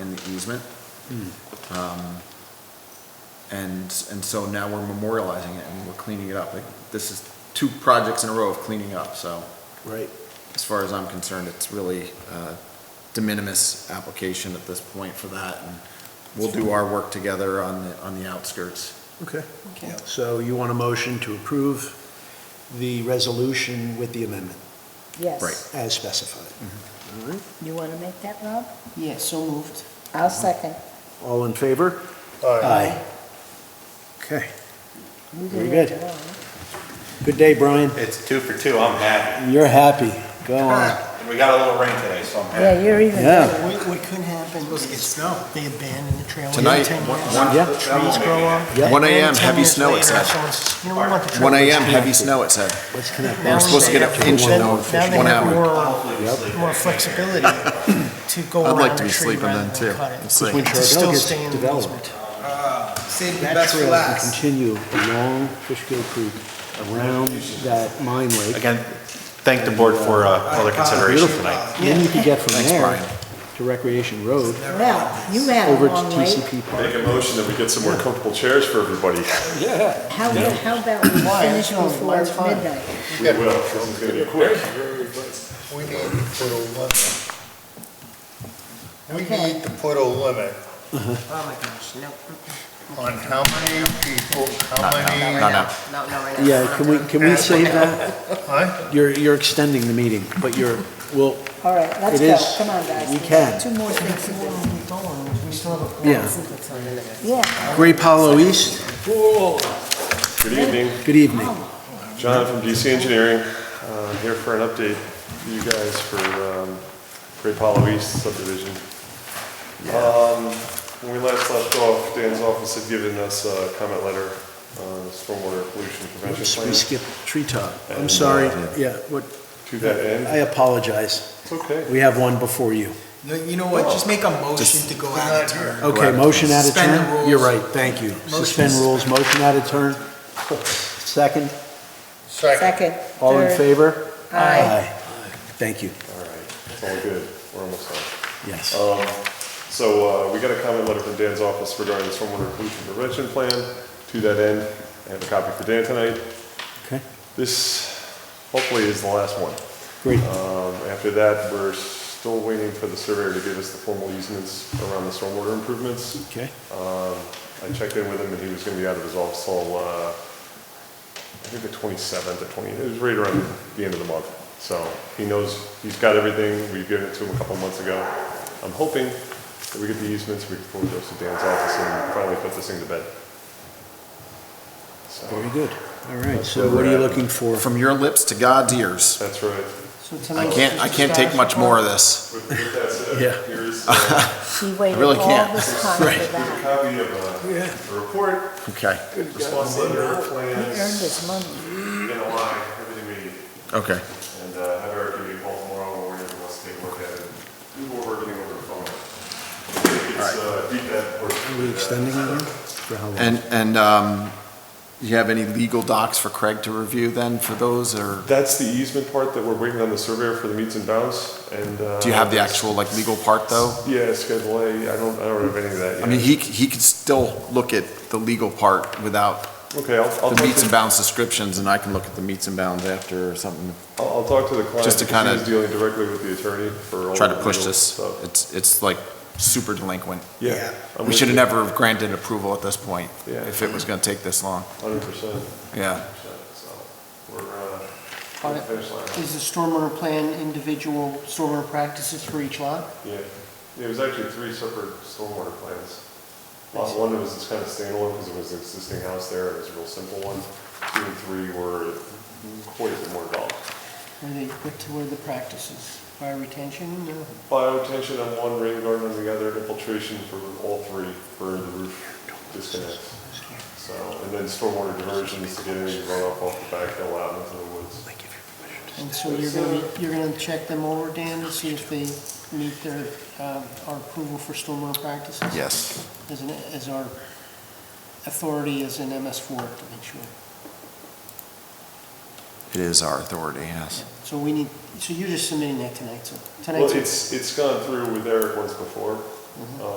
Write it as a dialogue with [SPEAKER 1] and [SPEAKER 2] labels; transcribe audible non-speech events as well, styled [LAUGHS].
[SPEAKER 1] in the easement. Um, And, and so now we're memorializing it and we're cleaning it up. Like, This is two projects in a row of cleaning up, so
[SPEAKER 2] Right.
[SPEAKER 1] as far as I'm concerned, it's really uh, de minimis application at this point for that. And We'll do our work together on, the on the outskirts.
[SPEAKER 2] Okay.
[SPEAKER 3] Okay.
[SPEAKER 2] So you want a motion to approve the resolution with the amendment
[SPEAKER 1] Right.
[SPEAKER 4] Yes.
[SPEAKER 2] as specified?
[SPEAKER 1] Mm-hmm.
[SPEAKER 2] All right.
[SPEAKER 4] You want to make that, Rob?
[SPEAKER 3] Yes, so moved.
[SPEAKER 4] I'll second.
[SPEAKER 2] All in favor? Aye. Okay.
[SPEAKER 4] You
[SPEAKER 2] Very
[SPEAKER 4] do it
[SPEAKER 2] good.
[SPEAKER 4] alone.
[SPEAKER 2] Good day, Brian.
[SPEAKER 5] It's two for two, I'm happy.
[SPEAKER 2] You're happy.
[SPEAKER 1] [LAUGHS]
[SPEAKER 2] Go on.
[SPEAKER 5] And we got a little rain today, so I'm happy.
[SPEAKER 4] Yeah, you're even
[SPEAKER 2] Yeah.
[SPEAKER 4] better.
[SPEAKER 6] What, what could happen is they abandon the trail. within
[SPEAKER 1] Tonight,
[SPEAKER 6] 10
[SPEAKER 1] one-
[SPEAKER 6] years.
[SPEAKER 1] one-
[SPEAKER 2] Yeah.
[SPEAKER 6] Trees grow up.
[SPEAKER 2] Yeah.
[SPEAKER 1] 1 a.m.,
[SPEAKER 6] And 10
[SPEAKER 1] heavy
[SPEAKER 6] years
[SPEAKER 1] snow, it
[SPEAKER 6] later,
[SPEAKER 1] said.
[SPEAKER 6] someone's- You know, we want the trail.
[SPEAKER 1] 1 AM, heavy snow, it said.
[SPEAKER 2] Let's connect.
[SPEAKER 6] Now
[SPEAKER 1] We're supposed to get
[SPEAKER 6] they
[SPEAKER 1] an
[SPEAKER 6] have-
[SPEAKER 1] inch in
[SPEAKER 6] now they
[SPEAKER 1] one
[SPEAKER 6] have
[SPEAKER 1] hour.
[SPEAKER 6] more-
[SPEAKER 5] Hopefully we sleep.
[SPEAKER 6] More flexibility to go
[SPEAKER 1] I'd
[SPEAKER 6] around
[SPEAKER 1] like to
[SPEAKER 6] the
[SPEAKER 1] be
[SPEAKER 6] tree
[SPEAKER 1] sleeping
[SPEAKER 6] rather
[SPEAKER 1] then
[SPEAKER 6] than
[SPEAKER 1] too.
[SPEAKER 6] cut it.
[SPEAKER 1] It's
[SPEAKER 2] Because
[SPEAKER 1] like-
[SPEAKER 2] when
[SPEAKER 6] It's
[SPEAKER 2] Charbel
[SPEAKER 6] still
[SPEAKER 2] gets
[SPEAKER 6] staying in the
[SPEAKER 2] developed,
[SPEAKER 7] Save the
[SPEAKER 2] that
[SPEAKER 7] best for
[SPEAKER 2] trail can
[SPEAKER 7] last.
[SPEAKER 2] continue along Fishkill Creek around that mine lake.
[SPEAKER 5] Again, thank the board for uh, all their consideration tonight.
[SPEAKER 2] And then you can get from
[SPEAKER 1] Thanks,
[SPEAKER 2] there
[SPEAKER 1] Brian.
[SPEAKER 2] to Recreation Road
[SPEAKER 4] Well, you had
[SPEAKER 2] over
[SPEAKER 4] a
[SPEAKER 2] to
[SPEAKER 4] long wait.
[SPEAKER 2] TCP Park.
[SPEAKER 8] Make a motion that we get some more comfortable chairs for everybody.
[SPEAKER 4] How, how about we
[SPEAKER 6] Why?
[SPEAKER 4] finish
[SPEAKER 6] It's only
[SPEAKER 4] before
[SPEAKER 6] one fine.
[SPEAKER 4] midnight?
[SPEAKER 8] We will, this is gonna be quick.
[SPEAKER 7] We need to put a limit. We
[SPEAKER 4] Okay.
[SPEAKER 7] need to put a limit
[SPEAKER 3] Oh, my gosh, no,
[SPEAKER 7] on how many people, how many.
[SPEAKER 1] No, no.
[SPEAKER 3] not, not right now.
[SPEAKER 2] Yeah, can we, can we save that?
[SPEAKER 7] Huh?
[SPEAKER 2] You're, you're extending the meeting, but you're, well,
[SPEAKER 4] All right, let's
[SPEAKER 2] It is.
[SPEAKER 4] go. Come on, guys.
[SPEAKER 2] We can.
[SPEAKER 4] Two more things to do.
[SPEAKER 6] We still have a.
[SPEAKER 2] yeah.
[SPEAKER 4] Yeah.
[SPEAKER 2] Grape Hollow East,
[SPEAKER 8] Good evening,
[SPEAKER 2] good evening.
[SPEAKER 8] John from DC Engineering, uh, here for an update for you guys for um, Great Hollow East subdivision. Um, When we last left off, Dan's office had given us a comment letter on stormwater pollution
[SPEAKER 2] We
[SPEAKER 8] prevention plan.
[SPEAKER 2] skipped Treetop. I'm sorry, yeah, what,
[SPEAKER 8] To that
[SPEAKER 2] I
[SPEAKER 8] end,
[SPEAKER 2] apologize.
[SPEAKER 8] it's okay.
[SPEAKER 2] We have one before you.
[SPEAKER 7] No, you know what, just make a motion to go out of turn.
[SPEAKER 2] Okay, motion out of
[SPEAKER 7] Suspend the
[SPEAKER 2] turn?
[SPEAKER 7] rules.
[SPEAKER 2] You're right, thank you. Suspend rules, motion out of turn. Second,
[SPEAKER 7] Second.
[SPEAKER 4] Second.
[SPEAKER 2] all in
[SPEAKER 4] third.
[SPEAKER 2] favor?
[SPEAKER 4] Aye.
[SPEAKER 2] Thank you,
[SPEAKER 8] All right, it's all good, we're almost done.
[SPEAKER 2] yes.
[SPEAKER 8] Um, So uh, we got a comment letter from Dan's office regarding the stormwater pollution prevention plan. To that end, I have a copy for Dan tonight.
[SPEAKER 2] Okay,
[SPEAKER 8] This hopefully is the last one.
[SPEAKER 2] great.
[SPEAKER 8] Um, After that, we're still waiting for the surveyor to give us the formal easements around the stormwater improvements.
[SPEAKER 2] Okay,
[SPEAKER 8] Um, I checked in with him, and he was gonna be out of his office till, uh, I think the 27th or 20th, it was right around the end of the month. So he knows, he's got everything, we've given it to him a couple months ago. I'm hoping that we get the easements, we can forward those to Dan's office and finally put this thing to bed. So,
[SPEAKER 2] very good. All right, so what are you looking for?
[SPEAKER 1] From your lips to God's ears.
[SPEAKER 8] that's right.
[SPEAKER 1] I can't, I can't take much more of this.
[SPEAKER 8] With with that
[SPEAKER 2] Yeah.
[SPEAKER 8] said, here's uh,
[SPEAKER 4] She waited
[SPEAKER 1] really
[SPEAKER 4] all
[SPEAKER 1] can't.
[SPEAKER 4] this
[SPEAKER 1] [LAUGHS]
[SPEAKER 4] time for
[SPEAKER 8] here's a
[SPEAKER 4] that.
[SPEAKER 8] copy of uh, the report,
[SPEAKER 1] Okay,
[SPEAKER 8] response letter,
[SPEAKER 4] He earned
[SPEAKER 8] plans,
[SPEAKER 4] his money.
[SPEAKER 8] NOI, everything we need.
[SPEAKER 1] okay.
[SPEAKER 8] And uh, have Eric give you a call tomorrow morning and let's take a look at it. We will work everything over the phone. It's, uh, deep that work.
[SPEAKER 2] Are we extending it again? For how long?
[SPEAKER 1] And, and um, you have any legal docs for Craig to review then for those, or
[SPEAKER 8] That's the easement part that we're waiting on the surveyor for the meets and bounds and. uh,
[SPEAKER 1] do you have the actual, like, legal part, though?
[SPEAKER 8] Yeah, Schedule A, I don't, I don't have any of that yet.
[SPEAKER 1] I mean, he, he could still look at the legal part without
[SPEAKER 8] Okay, I'll, I'll.
[SPEAKER 1] the
[SPEAKER 8] talk
[SPEAKER 1] meets
[SPEAKER 8] to-
[SPEAKER 1] and bounds descriptions, and I can look at the meets and bounds after or something,
[SPEAKER 8] I'll, I'll talk to the client.
[SPEAKER 1] Just to
[SPEAKER 8] because
[SPEAKER 1] kinda
[SPEAKER 8] He's dealing directly with the attorney for all.
[SPEAKER 1] try to
[SPEAKER 8] the
[SPEAKER 1] push
[SPEAKER 8] legal
[SPEAKER 1] this.
[SPEAKER 8] stuff.
[SPEAKER 1] It's, it's like super delinquent.
[SPEAKER 8] Yeah. I'm
[SPEAKER 1] We
[SPEAKER 8] with
[SPEAKER 1] should have
[SPEAKER 8] you.
[SPEAKER 1] never have granted approval at this point,
[SPEAKER 8] Yeah.
[SPEAKER 1] if it was gonna take this long,
[SPEAKER 8] Hundred percent,
[SPEAKER 1] yeah.
[SPEAKER 8] so we're, uh,
[SPEAKER 3] On
[SPEAKER 8] we're
[SPEAKER 3] it.
[SPEAKER 8] finished line.
[SPEAKER 3] Is the stormwater plan individual stormwater practices for each lot?
[SPEAKER 8] Yeah, Yeah, it was actually three separate stormwater plans. Lot one was this kind of standalone because it was an existing house there, it was a real simple one. Two and three were quite a bit more involved.
[SPEAKER 3] Where they put to where the practices, fire retention, you know?
[SPEAKER 8] Biotension on one, rain garden on the other, infiltration for all three for the roof disconnects. So, and then stormwater diversions to get any runoff off the back hill out into the woods.
[SPEAKER 3] And so you're gonna, you're gonna check them over, Dan, to see if they meet their, uh, our approval for stormwater practices?
[SPEAKER 1] Yes.
[SPEAKER 3] As an, as our authority as an MS four to make sure.
[SPEAKER 1] It is our authority, yes.
[SPEAKER 3] So we need, so you're just submitting that tonight, so.
[SPEAKER 8] Well,
[SPEAKER 3] tonight's.
[SPEAKER 8] it's, it's gone through with Eric once before, Um,